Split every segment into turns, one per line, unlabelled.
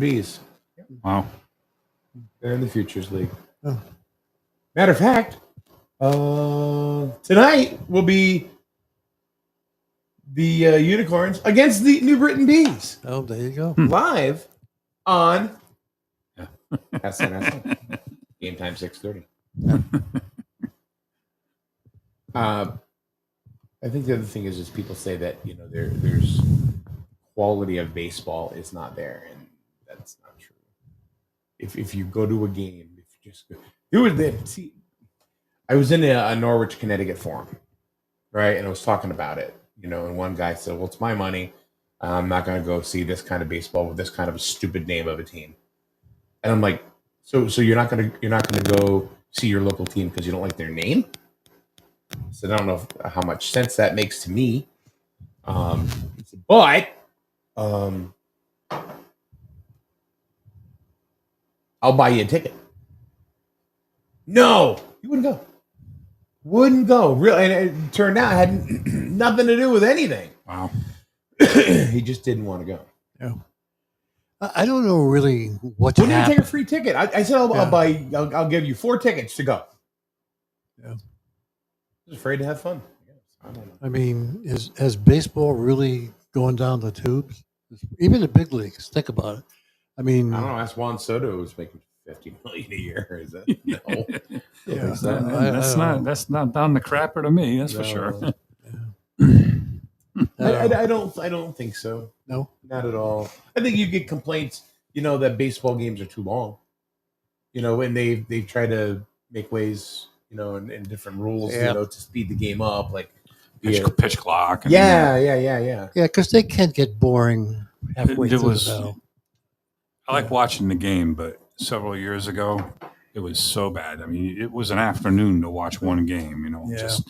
Bees. Wow. They're in the Futures League.
Oh.
Matter of fact, uh, tonight will be the uh, Unicorns against the New Britain Bees
Oh, there you go.
live on SNS. Game time six thirty. uh, I think the other thing is, is people say that you know there there's quality of baseball is not there, and that's not true. If if you go to a game, if you just go, it was the see, I was in a, a Norwich, Connecticut forum, right, and I was talking about it, you know, and one guy said, "Well, it's my money." I'm not going to go see this kind of baseball with this kind of a stupid name of a team. And I'm like, so so you're not going to you're not going to go see your local team because you don't like their name. So I don't know if, how much sense that makes to me. Um, but um, I'll buy you a ticket. No, you wouldn't go. Wouldn't go. Really, and it turned out it had nothing to do with anything.
Wow.
he just didn't want to go.
I I don't know really what
Wouldn't even
happened.
take a free ticket. I, I said I'll,
Yeah.
I'll buy. I'll, I'll give you four tickets to go.
Yeah.
Just afraid to have fun. I guess. I don't know.
I mean, is has baseball really going down the tubes? Even the big leagues. Think about it. I mean,
I don't know. That's Juan Soto who's making fifty million a year. Is that no?
yeah,
Is that-
I- I
that's
don't
not
know.
that's not down the crapper to me. That's for
No.
sure.
I don't
I,
know.
I, I don't. I don't think so.
No?
not at all. I think you get complaints. You know that baseball games are too long. You know, and they they try to make ways. You know, and, and different rules.
Yeah.
You know, to speed the game up. Like,
Pitch,
yeah,
pitch clock. and-
yeah, yeah, yeah, yeah.
yeah, because they can get boring halfway
It- it
through
was-
the battle.
I like watching the game, but several years ago, it was so bad. I mean, it was an afternoon to watch one game. You know,
Yeah.
just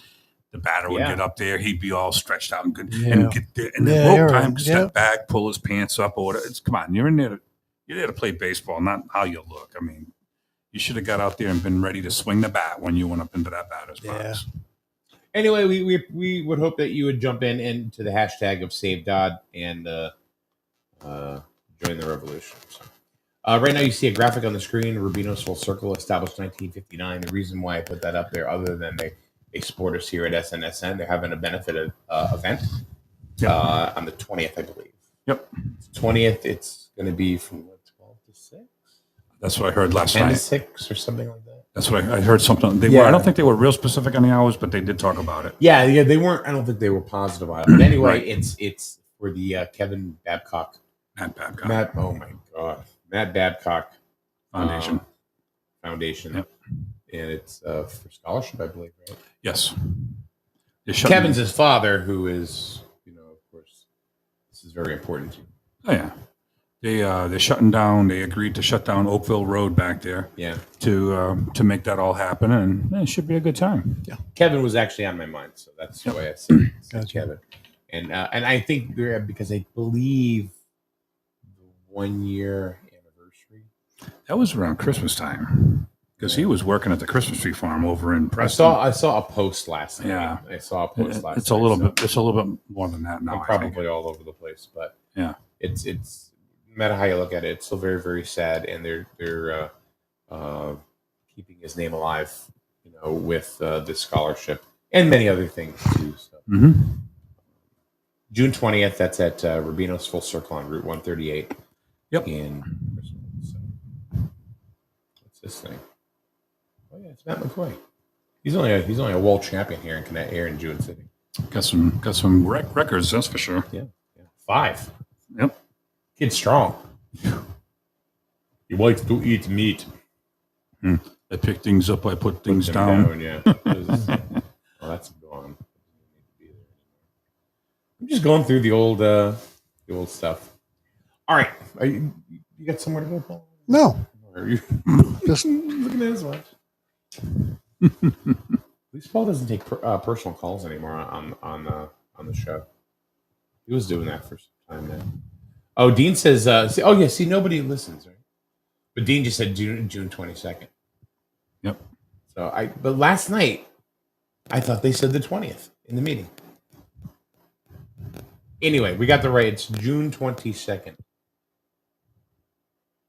the batter would
Yeah.
get up there, he'd be all stretched out and good,
Yeah.
and get there, and
Yeah,
then rope
you're
time,
right.
step back, pull his pants up, or whatever. It's come on, you're in there. To, you're there to play baseball, not how you look. I mean, you should have got out there and been ready to swing the bat when you went up into that batter's box.
Yeah.
anyway, we, we we would hope that you would jump in into the hashtag of Save Dodd and uh, uh, join the revolution. So, uh, right now, you see a graphic on the screen: Rubino's full circle, established 1959. The reason why I put that up there, other than they they support us here at SNSN, they're having a benefit of, uh, event
Yep.
uh, on the 20th, I believe.
Yep.
20th. It's going to be from what 12 to 6,
That's what I heard last
10 to
night.
6, or something like that.
That's what I, I heard. Something they were.
Yeah.
I don't think they were real specific on the hours, but they did talk about it.
Yeah, yeah, they weren't. I don't think they were positive on it. But anyway,
Right.
it's it's for the uh, Kevin Babcock.
Matt Babcock
Matt, oh my god, Matt Babcock
Foundation.
um, Foundation,
Yep.
and it's uh, for scholarship, I believe. Right?
yes. They're shutting-
Kevin's his father, who is you know, of course, this is very important to.
Oh yeah. They uh, they're shutting down. They agreed to shut down Oakville Road back there
Yeah,
to uh, to make that all happen, and eh, it should be a good time.
Kevin was actually on my mind, so that's the way I said, it. said
Gotcha.
Kevin, and uh, and I think they're because I believe the one year anniversary.
That was around Christmas time because he was working at the Christmas tree farm over in
I
Preston.
saw I saw a post last night.
Yeah.
I saw a post last.
it's a
night,
little
so-
bit. It's a little bit more than that now.
I'm
I think.
probably all over the place, but
Yeah.
it's it's no matter how you look at it, it's still very very sad, and they're they're uh, uh, keeping his name alive, you know, with uh, this scholarship and many other things too. So
Mhm.
June twentieth, that's at uh, Rubino's Full Circle on Route one thirty eight.
Yep.
In so what's this thing? Oh yeah, it's Matt McCoy. He's only a, he's only a world champion here in Connecticut, here in June City.
Got some got some rec- records. That's for sure.
Yeah. Five.
Yep.
Kid's strong. He likes to eat meat.
I pick things up. I put
Put
things
them
down.
yeah. well, that's gone. I'm just going through the old, uh, the old stuff. All right, Are you, you got somewhere to go, Paul?
No,
Or are you
just
looking at his watch? At least Paul doesn't take per, uh, personal calls anymore on on uh, on the show. He was doing that for some time now. Oh, Dean says, uh, see, "Oh yeah, see nobody listens, right?" But Dean just said June June twenty second.
Yep.
So I, but last night, I thought they said the twentieth in the meeting. Anyway, we got the right. It's June twenty second.